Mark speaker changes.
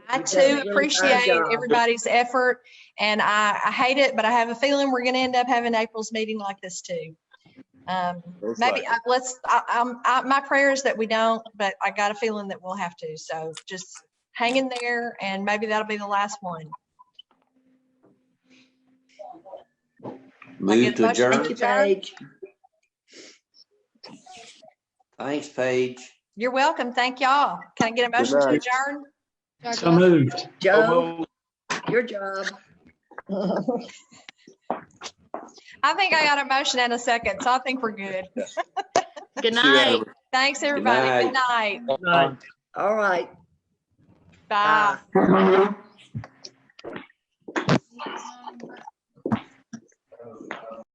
Speaker 1: I
Speaker 2: You've done a
Speaker 1: too
Speaker 2: really fine
Speaker 1: appreciate
Speaker 2: job.
Speaker 1: everybody's effort and I, I hate it, but I have a feeling we're going to end up having April's meeting like this too. Um,
Speaker 3: Most
Speaker 1: maybe
Speaker 3: likely.
Speaker 1: I- let's, I, I'm, I, my prayer is that we don't, but I got a feeling that we'll have to. So just hang in there and maybe that'll be the last one.
Speaker 4: Move
Speaker 1: get
Speaker 4: to
Speaker 1: much- thank
Speaker 4: adjourn.
Speaker 2: Thank you, Paige.
Speaker 4: Thanks, Paige.
Speaker 1: You're welcome. Thank y'all. Can I get a
Speaker 3: Good
Speaker 1: motion to
Speaker 3: night.
Speaker 1: adjourn?
Speaker 5: So moved.
Speaker 2: Joe, your job.
Speaker 1: I think I got a motion and a second, so I think we're good.
Speaker 6: Good
Speaker 4: See you,
Speaker 6: night.
Speaker 4: Edward.
Speaker 1: Thanks, everybody. Good night.
Speaker 2: All right.
Speaker 6: Ah.
Speaker 1: Bye.
Speaker 2: bye.